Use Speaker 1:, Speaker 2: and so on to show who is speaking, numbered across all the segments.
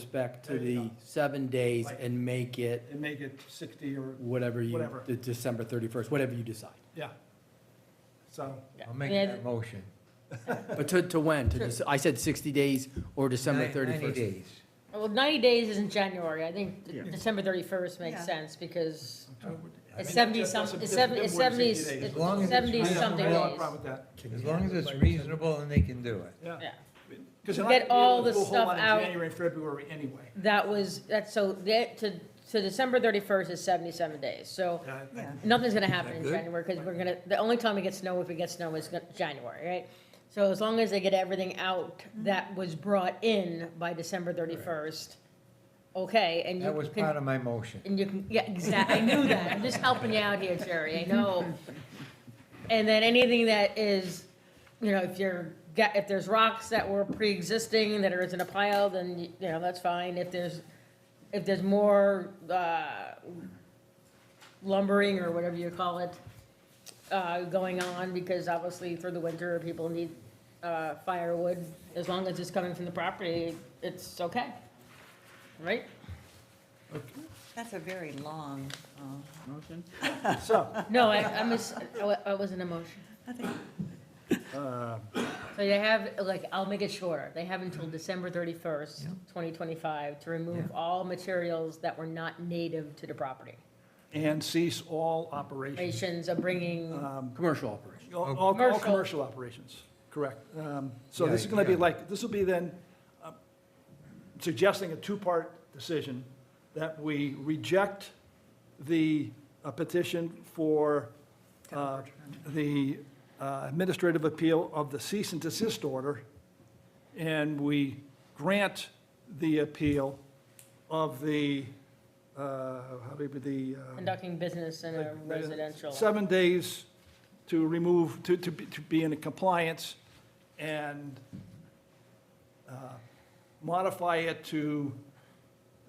Speaker 1: respect to
Speaker 2: There you
Speaker 1: the
Speaker 2: go.
Speaker 1: seven days
Speaker 2: Right.
Speaker 1: and make it
Speaker 2: and make it 60 or,
Speaker 1: whatever you,
Speaker 2: Whatever.
Speaker 1: the December 31st, whatever you decide.
Speaker 2: yeah. So,
Speaker 3: I'll make
Speaker 4: Yeah.
Speaker 3: that motion.
Speaker 1: But to, to when? To,
Speaker 4: Sure.
Speaker 1: Dece- I said 60 days or December
Speaker 3: Nine-
Speaker 1: 31st.
Speaker 3: Ninety days.
Speaker 4: Well, 90 days is in January. I think
Speaker 2: Yeah.
Speaker 4: December 31st makes
Speaker 5: Yeah.
Speaker 4: sense because
Speaker 3: I mean,
Speaker 4: it's
Speaker 2: mean,
Speaker 4: 70
Speaker 2: that's-
Speaker 4: some,
Speaker 2: that's a
Speaker 4: it's
Speaker 2: bit-
Speaker 4: 70,
Speaker 2: bit
Speaker 4: it's
Speaker 2: more than
Speaker 4: 70,
Speaker 2: 60 days.
Speaker 3: As long as it's
Speaker 2: I
Speaker 4: 70
Speaker 2: have
Speaker 4: something
Speaker 2: no
Speaker 4: days.
Speaker 2: problem with that,
Speaker 3: As long as it's reasonable and they can do it.
Speaker 2: yeah.
Speaker 4: Yeah.
Speaker 2: Because
Speaker 4: You
Speaker 2: you're not
Speaker 4: get
Speaker 2: gonna be able to
Speaker 4: all the
Speaker 2: do a whole
Speaker 4: stuff
Speaker 2: lot in
Speaker 4: out.
Speaker 2: January, and February anyway.
Speaker 4: That was, that's so, that, to, to December 31st is 77 days. So
Speaker 2: Yeah, I-
Speaker 5: Yeah.
Speaker 4: nothing's going to happen in
Speaker 3: good?
Speaker 4: January because we're going to, the only time we get snow, if we get snow, is gonna- January, right? So as long as they get everything out that was brought in by December 31st, okay, and you
Speaker 3: That was
Speaker 4: can-
Speaker 3: part of my motion.
Speaker 4: And you can, yeah, exactly, I knew that, I'm just helping you out here, Jerry, I know. And then anything that is, you know, if you're, got- if there's rocks that were pre-existing that are in a pile, then, you know, that's fine. If there's, if there's more uh, lumbering or whatever you call it, uh, going on, because obviously through the winter, people need uh, firewood, as long as it's coming from the property, it's okay, right?
Speaker 5: That's a very long, um,
Speaker 6: Motion?
Speaker 2: So,
Speaker 4: No, I, I was, I wa- I wasn't emotional.
Speaker 5: I think,
Speaker 2: uh,
Speaker 4: So they have, like, I'll make it shorter. They have until December thirty-first, twenty twenty-five, to remove all materials that were not native to the property.
Speaker 2: and cease all operations,
Speaker 4: Operations of bringing,
Speaker 2: Um,
Speaker 1: Commercial operation.
Speaker 3: Oh,
Speaker 2: all, all- all
Speaker 4: Commercial.
Speaker 2: commercial operations, correct. Um, So this is
Speaker 3: Yeah,
Speaker 2: going to be
Speaker 3: yeah.
Speaker 2: like, this will be then uh, suggesting a two-part decision, that we reject the uh, petition for uh, the uh, administrative appeal of the cease and desist order, and we grant the appeal of the, uh, how do you, the. um,
Speaker 4: conducting business in a residential.
Speaker 2: Seven days to remove, to, to be, to be in compliance and uh, modify it to,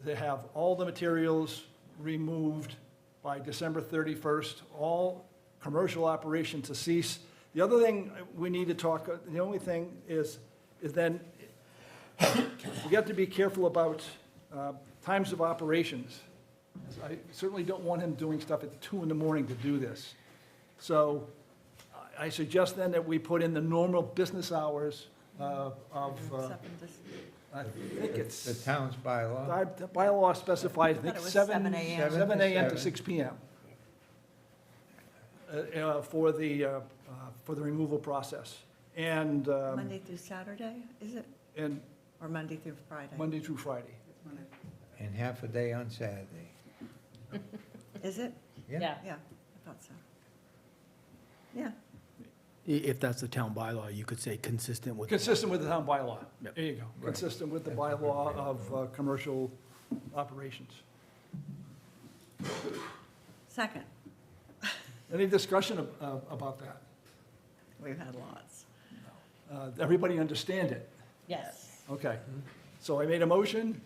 Speaker 2: to have all the materials removed by December 31st, all commercial operations to cease. The other thing we need to talk, the only thing is, is then, we have to be careful about uh, times of operations. I certainly don't want him doing stuff at two in the morning to do this. So I- I suggest then that we put in the normal business hours uh, of, uh,
Speaker 5: something just-
Speaker 2: I think it's.
Speaker 3: The town's bylaw.
Speaker 2: Our bylaw specifies, I think,
Speaker 5: Thought it was
Speaker 2: 7
Speaker 5: 7 a.m.
Speaker 2: 7 a.m. to
Speaker 3: 7.
Speaker 2: 6 p.m. uh, uh, for the, uh, uh, for the removal process. And, um,
Speaker 5: Monday through Saturday, is it?
Speaker 2: and
Speaker 5: Or Monday through Friday?
Speaker 2: Monday through Friday.
Speaker 3: And half a day on Saturday.
Speaker 5: Is it?
Speaker 4: Yeah,
Speaker 5: Yeah, I thought so. Yeah,
Speaker 1: I- If that's the town bylaw, you could say consistent with.
Speaker 2: Consistent with the town bylaw.
Speaker 1: Yep.
Speaker 2: There you go.
Speaker 3: Right.
Speaker 2: Consistent with the bylaw of uh, commercial operations.
Speaker 5: second,
Speaker 2: Any discussion ab- uh, about that?
Speaker 5: we've had lots.
Speaker 2: Uh, Everybody understand it?
Speaker 4: yes.
Speaker 2: Okay. So I made a motion.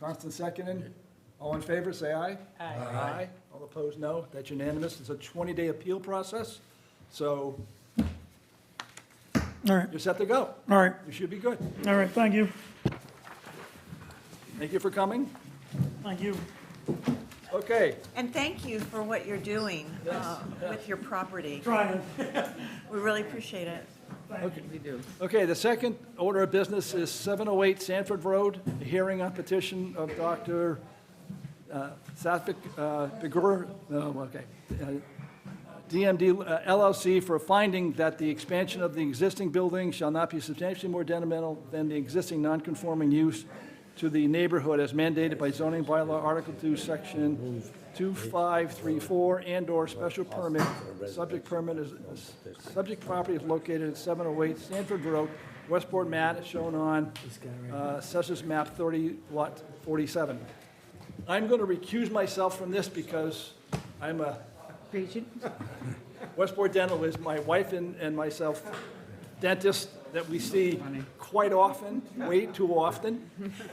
Speaker 2: Constance seconded. All in favor, say aye.
Speaker 4: Aye.
Speaker 2: Aye. All opposed, no. That's unanimous. It's a 20-day appeal process, so
Speaker 6: All right,
Speaker 2: you're set to go.
Speaker 6: all right,
Speaker 2: You should be good.
Speaker 6: all right, thank you,
Speaker 2: Thank you for coming.
Speaker 6: thank you.
Speaker 2: Okay.
Speaker 5: And thank you for what you're doing uh, with your property.
Speaker 6: Trying.
Speaker 5: We really appreciate it.
Speaker 2: Okay, the second order of business is 708 Sanford Road, a hearing on petition of Dr. uh, Satvik uh, Begur, no, okay, uh, DMD uh, LLC for finding that the expansion of the existing building shall not be substantially more detrimental than the existing nonconforming use to the neighborhood as mandated by zoning bylaw Article 2, Section 2534, and/or special permit. Subject permit is, is- subject property is located at 708 Sanford Road, Westport, Matt, as shown on uh, Assessors Map 30, Lot 47. I'm going to recuse myself from this because I'm a, Westport Dental is my wife and, and myself dentist that we see quite often, way too often.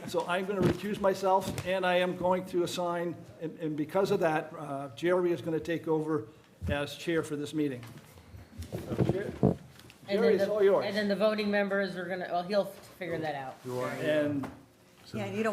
Speaker 2: So I'm going to recuse myself, and I am going to assign, and, and because of that, uh, Jerry is going to take over as chair for this meeting.
Speaker 4: And
Speaker 2: Jerry,
Speaker 4: then
Speaker 2: it's
Speaker 4: the-
Speaker 2: all yours.
Speaker 4: And then the voting members are gonna, well, he'll figure that out.
Speaker 2: And
Speaker 1: so.
Speaker 5: Yeah, you don't